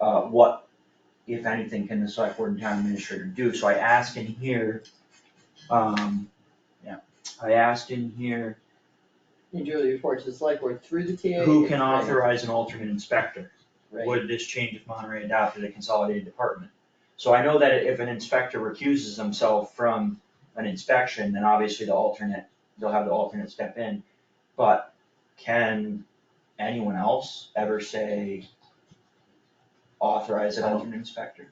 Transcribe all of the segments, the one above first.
uh, what, if anything, can the select board and town administrator do? So I ask in here, um, yeah, I asked in here, You do the report to the select board through the TA. who can and- authorize an alternate inspector? Right. Would this change if Monterey adopted a consolidated department? So I know that if an inspector recuses himself from an inspection, then obviously the alternate, they'll have the alternate step in. But can anyone else ever say authorize an I don't- alternate inspector?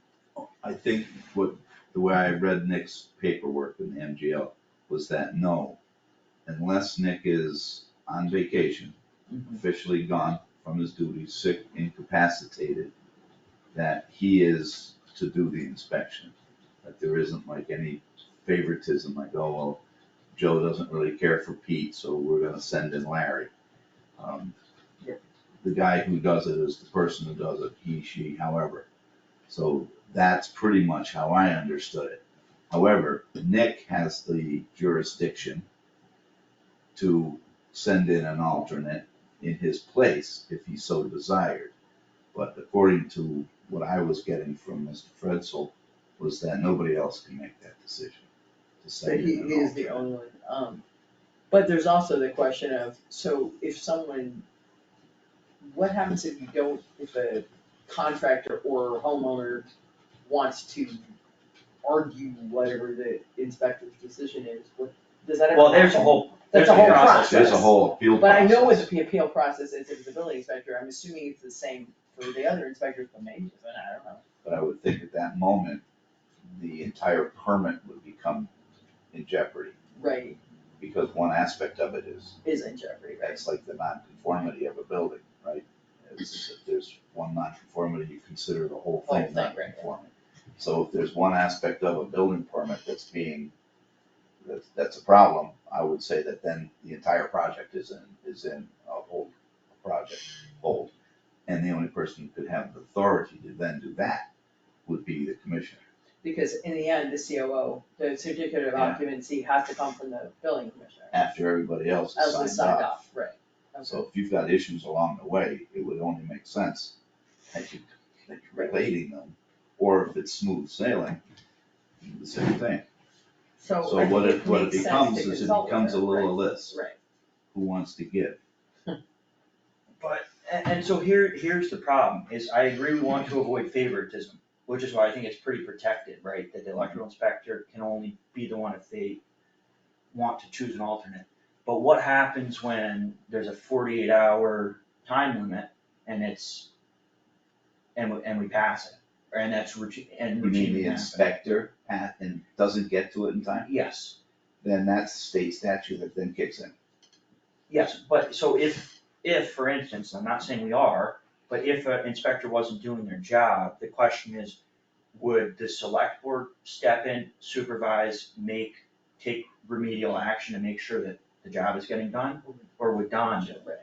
I think what, the way I read Nick's paperwork in the MGL was that no, unless Nick is on vacation, Mhm. officially gone from his duties, sick, incapacitated, that he is to do the inspection, that there isn't like any favoritism, like, oh, well, Joe doesn't really care for Pete, so we're gonna send in Larry. Um, Yeah. The guy who does it is the person who does it, he, she, however. So that's pretty much how I understood it. However, Nick has the jurisdiction to send in an alternate in his place if he so desired. But according to what I was getting from Mr. Fredsel, was that nobody else can make that decision. to So send he, in an he is the alternate. only one, um, but there's also the question of, so if someone, what happens if you don't, if a contractor or homeowner wants to argue whatever the inspector's decision is, what, does that ever Well, there's a happen? whole, there's That's a a whole process. process. There's a whole appeal But I process. know what the appeal process is if the building inspector, I'm assuming it's the same for the other inspectors, but maybe, it's not, I don't know. But I would think at that moment, the entire permit would become in jeopardy, Right, because one aspect of it is, is in jeopardy, right? that's like the nonconformity of a building, right? It's, if there's one nonconformity, you consider the whole Whole thing thing, right, right. nonconforming. So if there's one aspect of a building permit that's being, that's, that's a problem, I would say that then the entire project is in, is in a hold, a project hold. And the only person who could have the authority to then do that would be the commissioner. Because in the end, the COO, the certificate of Yeah. occupancy has to come from the building commissioner. after everybody else As a has signed signed up. off, right. Okay. So if you've got issues along the way, it would only make sense that you, that you're relating them, or if it's smooth sailing, the same thing. So So Oh, I what think it, it what it makes sense to becomes is it consult with becomes a her, little right, list, right. who wants to give? But, and, and so here, here's the problem, is I agree we want to avoid favoritism, which is why I think it's pretty protected, right? That the electrical inspector can only be the one if they want to choose an alternate. But what happens when there's a forty-eight hour time limit and it's, and we, and we pass it? And that's routine, and You mean E routinely the happens. inspector, Pat, and doesn't get to it in time, Yes. then that's state statute that then kicks in. Yes, but so if, if, for instance, I'm not saying we are, but if an inspector wasn't doing their job, the question is, would the select board step in, supervise, make, take remedial action to make sure that the job is getting done? Or would Don do it? Right.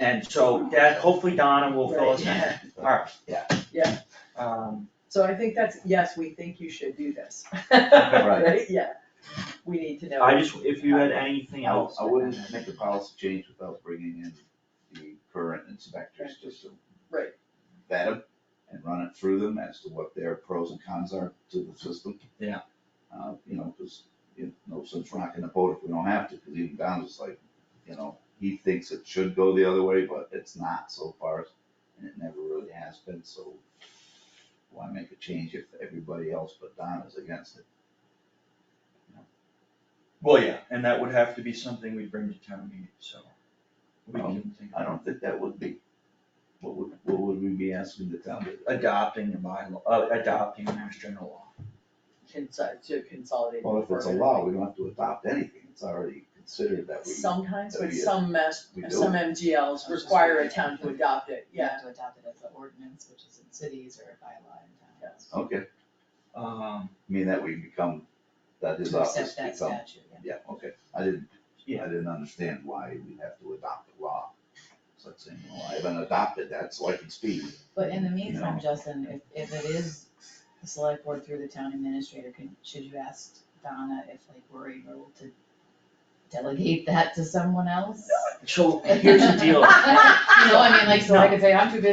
And so that, hopefully Donna will fill us in. Right, Alright. Yeah. Yeah. Um, So I think that's, yes, we think you should do this. Yeah, we need to know. I just, if you had anything I- else. I wouldn't make a policy change without bringing in the current inspectors, just to. Right. Vet them and run it through them as to what their pros and cons are to the system. Yeah. Uh, you know, cause, you know, no sense rocking the boat if we don't have to, cause even Don was like, you know, he thinks it should go the other way, but it's not so far, and it never really has been, so. Why make a change if everybody else but Don is against it? Well, yeah, and that would have to be something we'd bring to town meeting, so. We can think. I don't think that would be, what would, what would we be asking the town to do? adopting the bylaw, uh, adopting mass general law. Consult, to consolidate. Well, if it's a further. law, we don't have to adopt anything, it's already considered that we, Sometimes, that but we- some mess, we do some it. MGLs just require a thinking. town to adopt it, You yeah. have to adopt it as an ordinance, which is in cities or by law in towns. okay, I Um, mean, that we become, that his To office accept that become, statute, yeah. yeah, okay, I didn't, I Yeah. didn't understand why we have to adopt a law. So it's saying, well, I haven't adopted that, so I can speak, But in the meantime, No. Justin, if, if it is the select board through the town administrator, can, should you ask Donna if like we're able to delegate that to someone else? so here's the deal. You know, I mean, like, so I could say, I'm too busy